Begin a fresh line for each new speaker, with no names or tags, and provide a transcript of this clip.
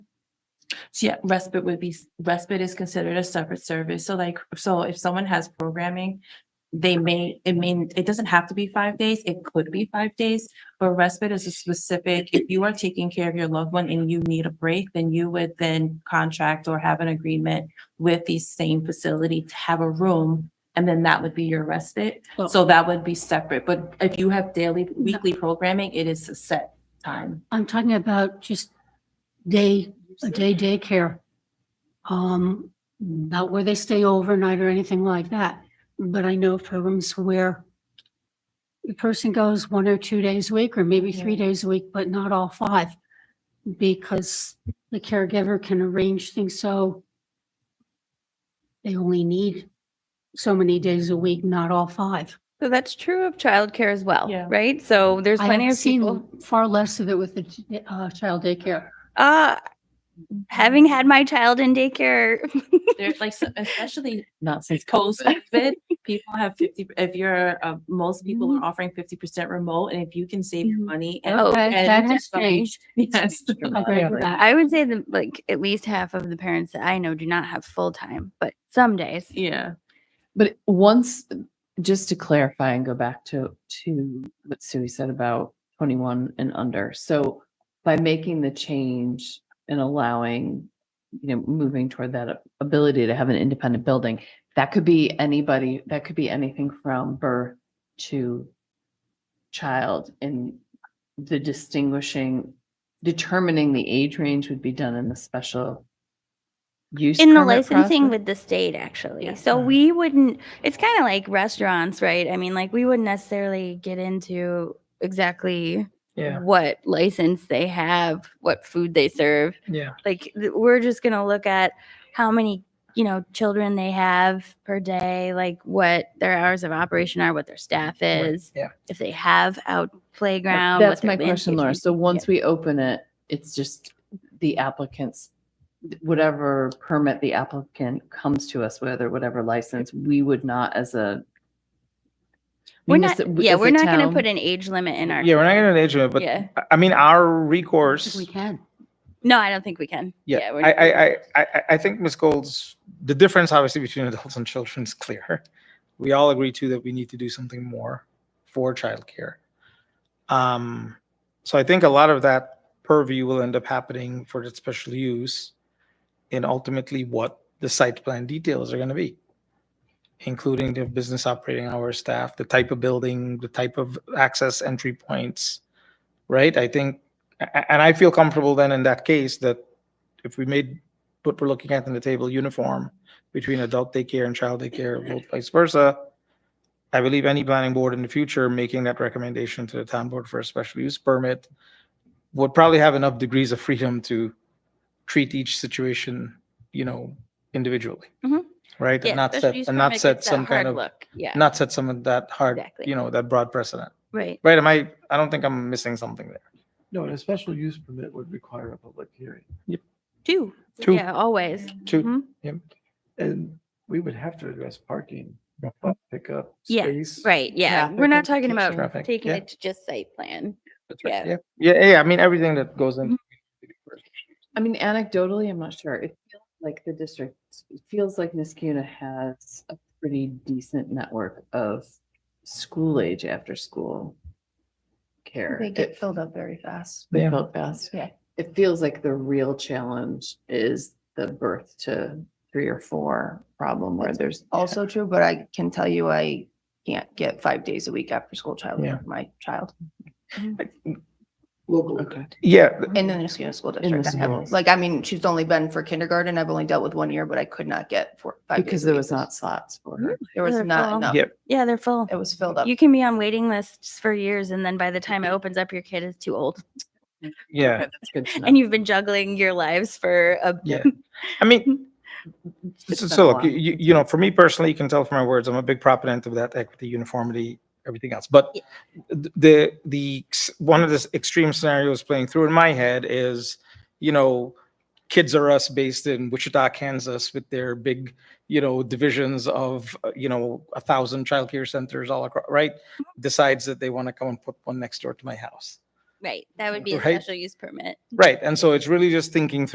So yeah, respite would be, respite is considered a separate service. So like, so if someone has programming, they may, it mean, it doesn't have to be five days. It could be five days. But respite is a specific, if you are taking care of your loved one and you need a break, then you would then contract or have an agreement with the same facility to have a room. And then that would be your respite.
Oh.
So that would be separate. But if you have daily, weekly programming, it is a set time.
I'm talking about just day, a day daycare. Um, not where they stay overnight or anything like that, but I know of programs where the person goes one or two days a week, or maybe three days a week, but not all five. Because the caregiver can arrange things so they only need so many days a week, not all five.
So that's true of childcare as well,
Yeah.
right? So there's
I
plenty
have
of people.
seen far less of it with the uh, child daycare.
Uh, having had my child in daycare,
There's like, so- especially not since COVID, people have fifty, if you're, uh, most people
Mm-hmm.
are offering fifty percent remote and if you can save your
Mhm.
money. and-
Oh,
That
and
that has
something-
changed.
Yes.
I agree with that.
I would say that like at least half of the parents that I know do not have full time, but some days.
Yeah.
But once, just to clarify and go back to, to what Sue said about twenty-one and under. So by making the change and allowing, you know, moving toward that ability to have an independent building, that could be anybody, that could be anything from birth to child and the distinguishing, determining the age range would be done in the special use.
in the
permit
licensing
process.
with the state actually
Yeah.
so
Mm.
we wouldn't it's kind of like restaurants right i mean like we wouldn't necessarily get into exactly
Yeah.
what license they have what food they serve
Yeah.
like th- we're just going to look at how many you know children they have per day like what their hours of operation are what their staff
Right,
is
yeah.
if they have out
Right,
playground what
That's
their
my question,
landscaping-
Laura. So once we open it, it's just the applicants, whatever permit the applicant comes to us, whether whatever license, we would not as a.
we're not
munici-
yeah
as a
we're not going to
town-
put an age limit in our
Yeah, we're not gonna age limit, but
Yeah.
I- I mean, our
I think
recourse.
We can.
no i don't think we can
Yeah,
we're
I,
not gonna-
I, I, I, I- I think Ms. Gold's, the difference obviously between adults and children is clear. We all agree too that we need to do something more for childcare. Um, so I think a lot of that purview will end up happening for the special use and ultimately what the site plan details are gonna be, including the business operating hours, staff, the type of building, the type of access entry points, right? I think, a- a- and I feel comfortable then in that case that if we made what we're looking at in the table uniform between adult daycare and child daycare, both vice versa, I believe any planning board in the future making that recommendation to the town board for a special use permit would probably have enough degrees of freedom to treat each situation, you know, individually.
Mhm.
Right?
Yeah,
And not
special
set,
use
and not
permit
set
gets that
some kind
hard
of,
look. Yeah,
not set some of that hard,
Exactly.
you know, that broad precedent.
right.
Right? Am I, I don't think I'm missing something there.
No, and a special use permit would require a public hearing,
Two.
Two.
Yeah, always.
Two.
Mhm.
and we would have to address parking, uh, pickup,
Yeah,
space.
Right. Yeah.
Traffic
We're not talking about
Traffic,
taking
yeah.
it to just site plan.
That's
right.
Yeah. Yeah, yeah, I mean, everything that goes in.
Mm-hmm.
I mean, anecdotally, I'm not sure. It feels like the district, it feels like Niskuna has a pretty decent network of school age after school care.
They
It-
get filled up very fast.
They
Yeah.
felt fast.
Yeah.
It feels like the real challenge is the birth to three or four problem where there's
Also true, but I can tell you I can't get five days a week after school child,
Yeah.
for my child
Okay.
Yeah,
in the Niskuna school
the
district. I have-
schools.
Like, I mean, she's only been for kindergarten. I've only dealt with one year, but I could not get four, five. days
Because
a
there
week.
was not slots for her.
There was
They're full.
not enough.
Yeah.
Yeah, they're full.
It was filled up.
You can be on waiting lists for years, and then by the time it opens up, your kid is too old,
yeah.
Okay, That's good to know.
and you've been juggling your lives for a
Yeah. I mean,
It's
so,
been a
so look,
while.
you, you know, for me personally, you can tell from my words, I'm a big proponent of that equity, uniformity, everything else. But
Yeah.
th- the, the, ex- one of the extreme scenarios playing through in my head is, you know, Kids Are Us based in Wichita, Kansas with their big, you know, divisions of, uh, you know, a thousand childcare centers all across, right?
Mm-hmm.
Decides that they want to come and put one next door to my house.
right. That would be a
Right.
special use permit.
Mm-hmm.
Right. And so it's really just thinking through